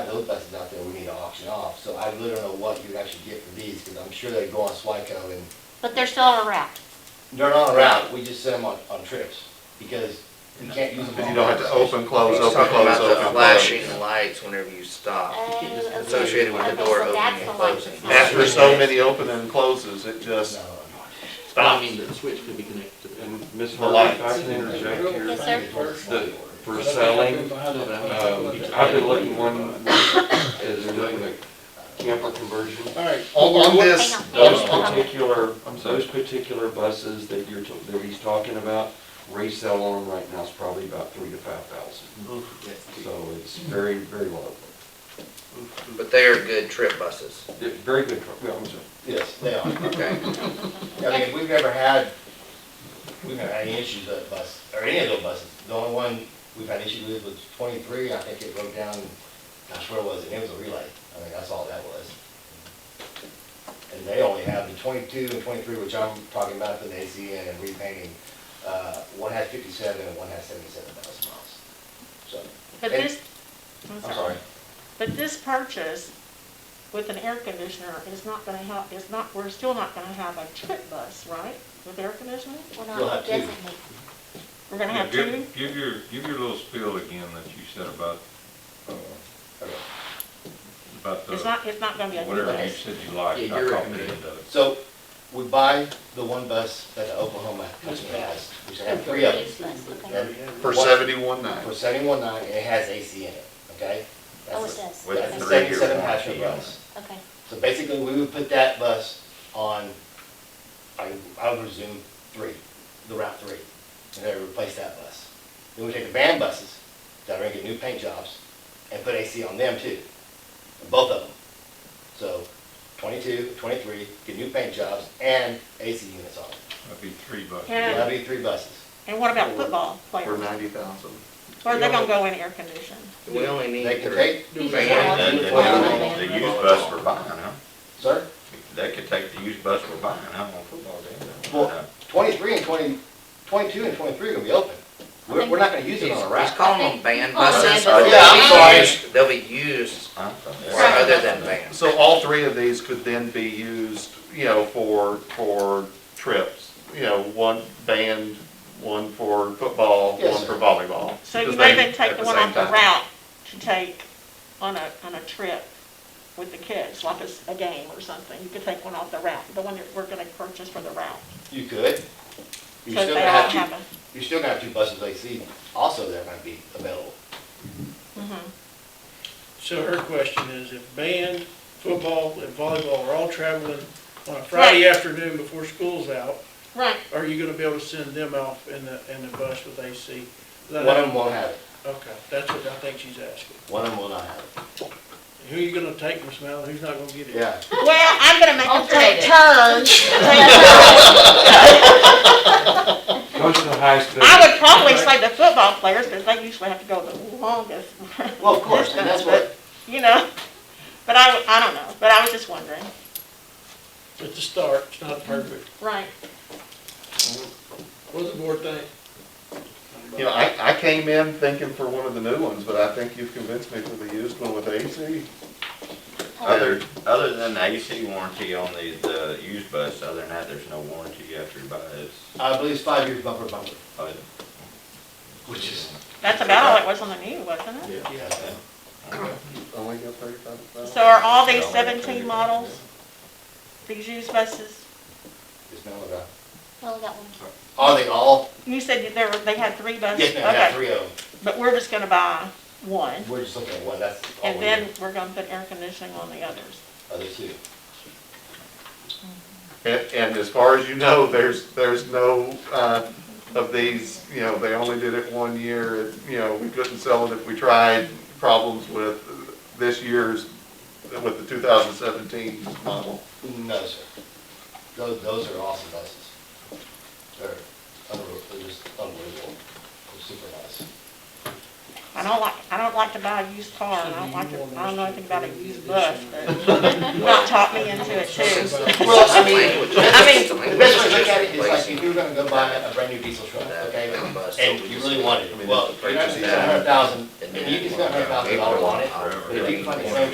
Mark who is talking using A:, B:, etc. A: field fences out there we need to auction off, so I really don't know what you'd actually get for these, because I'm sure they go on Swico and
B: But they're still on a route.
A: they're not around, we just send them on, on trips, because we can't use them.
C: Because
A: all
C: you don't have to
A: around.
C: open, close,
D: He's
C: open,
D: talking
C: close,
D: about the
C: open, close.
D: flashing lights whenever you stop,
B: Oh,
A: just
B: okay.
D: associated with the
B: Okay,
D: door
B: so
D: opening
B: that's the
D: and
B: light
D: closing.
B: that's not-
C: After so many open and closes, it just
A: No,
E: I
C: stops.
E: mean, the switch could be connected to that.
F: And Ms.
C: The
F: Hurley,
C: lights.
F: if I can interject here.
B: Yes, sir.
F: The- For selling, um, I've been looking one, is doing the camper conversion.
C: Alright. On this,
B: Hang on.
F: Those
B: Yeah, okay.
F: particular,
C: I'm sorry.
F: those particular buses that you're, t- that he's talking about, resale on them right now is probably about three to five thousand. So it's very, very low.
D: but they are good trip buses,
F: They're Very good truck, yeah, I'm sorry.
A: yes, they are.
D: okay?
A: I mean, we've never had, we've never had any issues with that bus, or any of those buses. The only one we've had issues with was twenty-three, I think it broke down, gosh, where was it? It was a relay. I mean, that's all that was. And they only have the twenty-two and twenty-three, which I'm talking about for the ACN and repainting. Uh, one has fifty-seven and one has seventy-seven thousand miles. So,
G: But this, I'm
A: I'm sorry.
G: sorry, but this purchase with an air conditioner is not gonna help, is not, we're still not gonna have a trip bus, right? With air conditioning?
B: We're
A: You'll
B: not
A: have two.
B: designated.
G: We're gonna
H: Yeah,
G: have two?
H: give, give your, give your little spiel again that you said about, uh,
A: Okay.
H: about
G: It's
H: the,
G: not, it's not gonna be a trip
H: whatever you
G: bus.
H: said you liked.
E: Yeah,
H: I
E: you're
H: caught the
E: recommending.
H: end of it.
A: So, we buy the one bus that the Oklahoma customer has, which I have three of them.
B: Useless, okay.
A: And
C: for
A: one-
C: seventy-one nine.
A: For seventy-one nine, it has AC in it, okay?
B: Oh, it
A: That's the-
B: does.
H: With
A: That's the
H: three year
A: seventy-seven passenger
H: warranty on
A: bus.
B: Okay.
A: So basically, we would put that bus on, I, I would resume three, the route three, and then replace that bus. Then we take the van buses that are gonna get new paint jobs and put AC on them too, both of them. So 22, 23, get new paint jobs and AC units on them.
H: That'd be three bucks.
A: So
G: And,
A: That'd be three buses.
G: and what about football
C: For
G: players?
C: ninety thousand.
G: Or are they gonna go in air conditioning?
D: We only need
A: They can
D: three.
A: take,
H: That-
B: Yeah.
H: that-
B: Yeah.
H: The used bus we're buying, huh?
A: sir?
H: They could take the used bus we're buying, huh, on football day.
A: Well, twenty-three and 20 22 and twenty-three are gonna be open. We're, we're not gonna use it
D: He's
A: on a
D: he's
A: rack.
D: calling them van
B: Oh, van
D: buses.
B: buses.
A: Yeah, I'm sorry.
D: They'll be used
H: Huh?
D: for other than vans.
C: So all three of these could then be used, you know, for, for trips, you know, one band, one for football,
A: Yes,
C: one
A: sir.
C: for volleyball.
G: So you
C: because
G: may
C: they-
G: then take
C: at
G: the one off
C: same
G: the
C: time.
G: route to take on a, on a trip with the kids, like it's a game or something. You could take one off the route, the one that we're gonna purchase for the route.
A: You could. You're
G: Because
A: still
G: they
A: gonna
G: all
A: have
G: have
A: two,
G: a,
A: you're still gonna have two buses AC also that might be available.
G: mhm.
I: So her question is, if band, football, and volleyball are all traveling on a Friday afternoon before school's out,
G: Right,
I: are you gonna be able to send them off in the, in the bus with AC?
A: One of them won't have it,
I: Okay, that's what I think she's asking.
A: one of them will not have it.
I: Who are you gonna take, Miss Mallon, who's not gonna get it?
A: Yeah.
G: well, I'm gonna make them
B: Alternate.
G: take turns.
F: Goes to the highest bidder.
G: I would probably say the football players, because they usually have to go the longest.
A: Well, of course, and that's what,
G: You know, but I, I don't know, but I was just wondering.
I: It's a start, it's not perfect.
G: Right.
I: What does the board think?
C: You know, I, I came in thinking for one of the new ones, but I think you've convinced me for the used one with AC.
H: Other, other than the AC warranty on the, the used bus, other than that, there's no warranty after you buy it. It's-
A: I believe it's five years bumper to bumper,
H: uh,
A: which is,
G: That's about all it was on the news, wasn't it?
A: yeah.
C: Only got thirty-five thousand.
G: So are all these seventeen models, these used buses?
A: It's not about-
B: Well, we got one.
A: Are they all?
G: You said that there were, they had three
A: Yes,
G: buses?
A: ma'am, I got
G: Okay,
A: three of them.
G: But we're just gonna buy one,
A: We're just looking at one, that's all we
G: and
A: need,
G: then we're gonna put air conditioning on the others.
A: other two.
C: And, and as far as you know, there's, there's no, uh, of these, you know, they only did it one year, it- you know, we couldn't sell it if we tried, problems with this year's, with the two thousand seventeen model.
A: No, sir. Those, those are awesome buses. They're unbelievable, they're just unbelievable, they're super nice.
G: I don't like, I don't like to buy a used car, and I don't like to, I don't know anything about a used bus, but Matt taught me into it too.
A: Well, I mean,
D: Language.
A: I mean,
D: Language.
A: the best way to look at it is like if you were gonna go buy a brand new diesel truck,
D: That
A: okay?
D: kind of bus, so
A: And
D: we
A: you
D: just-
A: really wanted
D: I
A: it,
D: mean,
A: well,
D: that's the
A: you're not gonna spend
D: purchase now.
A: a hundred thousand,
D: And
A: and you can
D: then
A: spend a hundred thousand dollars on it, but if you find the same